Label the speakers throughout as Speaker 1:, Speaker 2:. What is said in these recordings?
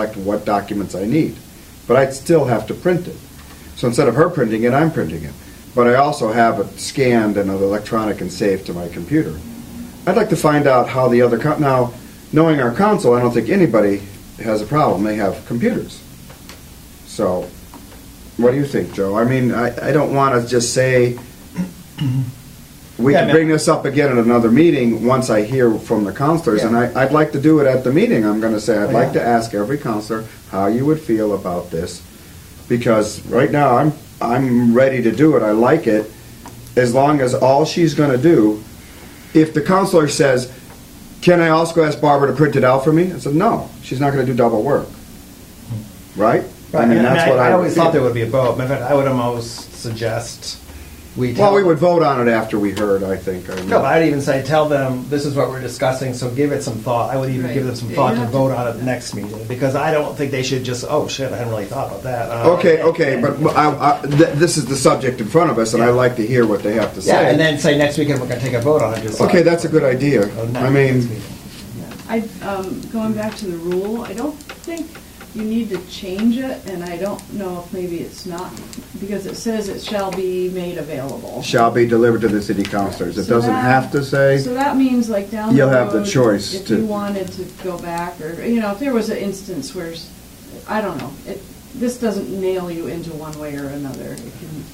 Speaker 1: select what documents I need. But I'd still have to print it. So instead of her printing it, I'm printing it. But I also have it scanned and electronic and saved to my computer. I'd like to find out how the other, coun- now, knowing our council, I don't think anybody has a problem. They have computers. So, what do you think, Joe? I mean, I, I don't want to just say, we
Speaker 2: Yeah, I
Speaker 1: can
Speaker 2: mean-
Speaker 1: bring this up again at another meeting, once I hear from the counselors, and I, I'd like to do it at the meeting, I'm gonna say, I'd
Speaker 2: Oh,
Speaker 1: like
Speaker 2: yeah.
Speaker 1: to ask every counselor how you would feel about this, because right now, I'm, I'm ready to do it, I like it, as long as all she's gonna do, if the counselor says, can I also ask Barbara to print it out for me? I said, no, she's not gonna do double work, right?
Speaker 2: Right, I mean,
Speaker 1: that's what
Speaker 2: I, I
Speaker 1: would
Speaker 2: always thought
Speaker 1: feel.
Speaker 2: there would be a vote, but I would almost suggest we tell.
Speaker 1: Well, we would vote on it after we heard, I think. I
Speaker 2: No, but I'd even say, tell them, this is what we're discussing, so give it some thought. I would even give them some
Speaker 3: Right.
Speaker 2: thought
Speaker 3: You
Speaker 2: to
Speaker 3: have
Speaker 2: vote
Speaker 3: to-
Speaker 2: on it the next meeting, because I don't think they should just, oh shit, I hadn't really thought about that. Uh,
Speaker 1: Okay, okay, but I, I, th- this is the subject in front of us, and I like to hear what they have to
Speaker 2: Yeah,
Speaker 1: say.
Speaker 2: and then say next weekend we're gonna take a vote on it. just-
Speaker 1: Okay, that's a good idea.
Speaker 2: Oh, not
Speaker 1: I
Speaker 2: next
Speaker 1: mean,
Speaker 2: meeting.
Speaker 3: I, um, going back to the rule, I don't think you need to change it, and I don't know if maybe it's not, because it says it shall be made available.
Speaker 1: shall be delivered to the city councilors. It
Speaker 3: So
Speaker 1: doesn't
Speaker 3: that-
Speaker 1: have to
Speaker 3: So
Speaker 1: say,
Speaker 3: that means like down the road.
Speaker 1: You'll have the choice
Speaker 3: If
Speaker 1: to-
Speaker 3: you wanted to go back, or, you know, if there was an instance where, s- I don't know, it, this doesn't nail you into one way or another. It can,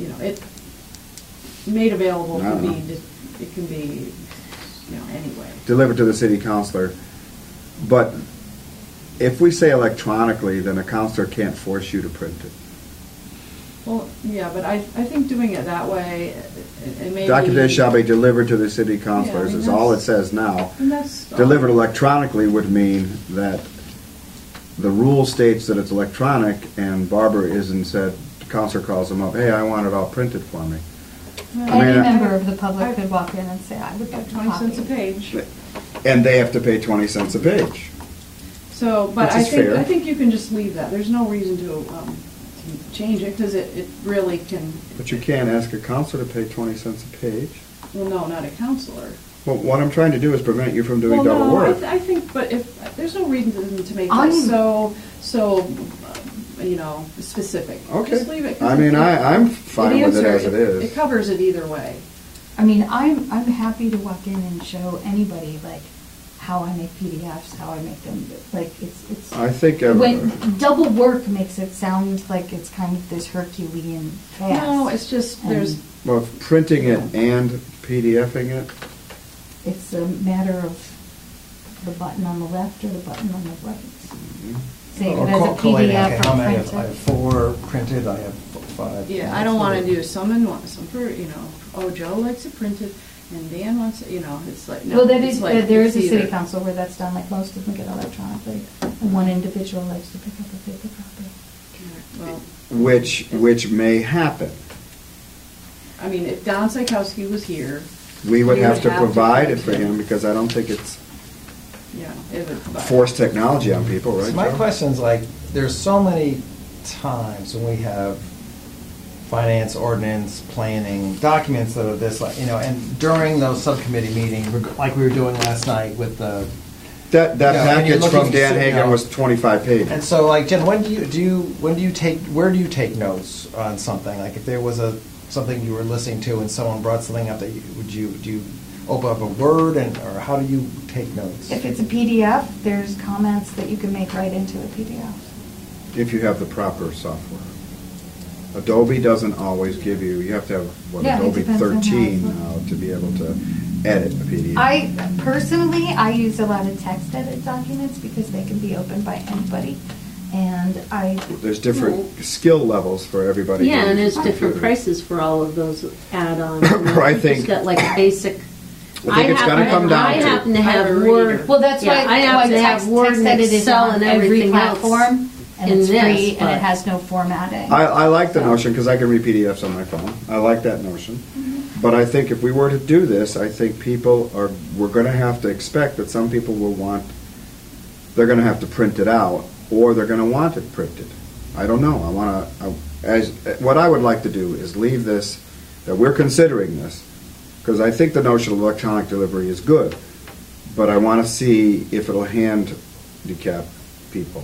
Speaker 3: you know, it, made available
Speaker 1: I
Speaker 3: can
Speaker 1: don't know.
Speaker 3: be, di- it can be, you know, anyway.
Speaker 1: delivered to the city councilor. But if we say electronically, then a counselor can't force you to print it.
Speaker 3: Well, yeah, but I, I think doing it that way, it it may be.
Speaker 1: Documents shall be delivered to the city
Speaker 3: I
Speaker 1: councilors
Speaker 3: mean,
Speaker 1: is all it
Speaker 3: that's-
Speaker 1: says now.
Speaker 3: And that's.
Speaker 1: Delivered electronically would mean that the rule states that it's electronic, and Barbara isn't said, the counselor calls him up, hey, I want it all printed for me. I mean,
Speaker 4: Any
Speaker 1: uh,
Speaker 4: member of the public could walk in and say, I would like to
Speaker 3: Twenty cents a
Speaker 4: copy.
Speaker 3: page.
Speaker 1: And they have to pay twenty cents a page.
Speaker 3: So, but
Speaker 1: Which
Speaker 3: I
Speaker 1: is
Speaker 3: think,
Speaker 1: fair.
Speaker 3: I think you can just leave that. There's no reason to, um, to change it, because it, it really can,
Speaker 1: But you can't ask a counselor to pay twenty cents a page.
Speaker 3: well, no, not a counselor.
Speaker 1: Well, what I'm trying to do is prevent you from doing
Speaker 3: Well,
Speaker 1: double
Speaker 3: no, I
Speaker 1: work.
Speaker 3: th- I think, but if, there's no reason to- to make
Speaker 4: I'm-
Speaker 3: it so, so, uh, you know, specific.
Speaker 1: Okay.
Speaker 3: Just leave it. 'cause
Speaker 1: I mean, I- I'm fine with it
Speaker 3: answers-
Speaker 1: as it is.
Speaker 3: It covers it either way.
Speaker 4: I mean, I'm, I'm happy to walk in and show anybody like how I make PDFs, how I make them, like it's, it's.
Speaker 1: I think, uh,
Speaker 4: When, double work makes it sound like it's kind of this Herculean task.
Speaker 3: No, it's just, there's,
Speaker 4: And
Speaker 1: well, printing it and PDFing it,
Speaker 4: It's a matter of the button on the left or the button on the right. Save
Speaker 2: Or
Speaker 4: it as a
Speaker 2: co- collating, okay,
Speaker 4: PDF
Speaker 2: how
Speaker 4: or
Speaker 2: many? I
Speaker 4: print
Speaker 2: have- I have
Speaker 4: it.
Speaker 2: four printed, I have five.
Speaker 3: Yeah, I don't want to do some and one, some for, you know, oh, Joe likes it printed and Dan wants it, you know, it's like, no.
Speaker 4: Well, that
Speaker 3: it's
Speaker 4: is,
Speaker 3: like
Speaker 4: there is a
Speaker 3: it's
Speaker 4: city
Speaker 3: either-
Speaker 4: council where that's done, like most of them get electronically, and one individual likes to pick up a paper copy.
Speaker 3: Well,
Speaker 1: which, which may happen.
Speaker 3: I mean, if Don Psychowski was here,
Speaker 1: We would
Speaker 3: You
Speaker 1: have to provide it for
Speaker 3: print
Speaker 1: him, because I don't think it's
Speaker 3: you know, it would. but-
Speaker 1: forced technology on people, right?
Speaker 2: So my
Speaker 1: Joe?
Speaker 2: question's like, there's so many times when we have finance, ordinance, planning, documents that are this, like, you know, and during those subcommittee meetings, reg- like we were doing last night with the,
Speaker 1: That, that
Speaker 2: Yeah, and you're
Speaker 1: package from
Speaker 2: looking-
Speaker 1: Dan
Speaker 2: yeah.
Speaker 1: Hagan was twenty-five
Speaker 2: and
Speaker 1: pages.
Speaker 2: so like, Jen, when do you, do you, when do you take, where do you take notes on something? Like if there was a, something you were listening to and someone brought something up that you, would you, do you open up a word and, or how do you take notes?
Speaker 4: If it's a PDF, there's comments that you can make right into a PDF.
Speaker 1: If you have the proper software. Adobe doesn't always give you, you have to have, what,
Speaker 4: Yeah, it
Speaker 1: Adobe
Speaker 4: depends on how it's
Speaker 1: thirteen
Speaker 4: looking.
Speaker 1: now to be able to edit a PDF.
Speaker 4: I, personally, I use a lot of text edit documents because they can be opened by anybody, and I.
Speaker 1: There's different skill levels for everybody.
Speaker 5: Yeah, and
Speaker 1: who's
Speaker 5: there's different
Speaker 1: computer.
Speaker 5: prices for all of those add-ons.
Speaker 1: I think-
Speaker 5: It's got like a basic.
Speaker 1: I think it's
Speaker 5: happen-
Speaker 1: gonna come down
Speaker 5: I
Speaker 1: to-
Speaker 5: happen to
Speaker 3: I have
Speaker 5: have
Speaker 3: a reader.
Speaker 5: Word.
Speaker 4: Well, that's why,
Speaker 5: yeah, I
Speaker 4: why
Speaker 5: have to have
Speaker 4: text
Speaker 5: Word
Speaker 4: text
Speaker 5: and
Speaker 4: edit is
Speaker 5: Excel
Speaker 4: on
Speaker 5: and
Speaker 4: every
Speaker 5: everything else.
Speaker 4: platform, and
Speaker 5: in
Speaker 4: it's
Speaker 5: this,
Speaker 4: free, and it
Speaker 5: but-
Speaker 4: has no formatting.
Speaker 1: I, I like the notion, because I can read PDFs on my phone. I like that notion. But I think if we were to do this, I think people are, we're gonna have to expect that some people will want, they're gonna have to print it out, or they're gonna want it printed. I don't know, I wanna, I- as, what I would like to do is leave this, that we're considering this, because I think the notion of electronic delivery is good, but I wanna see if it'll hand decap people.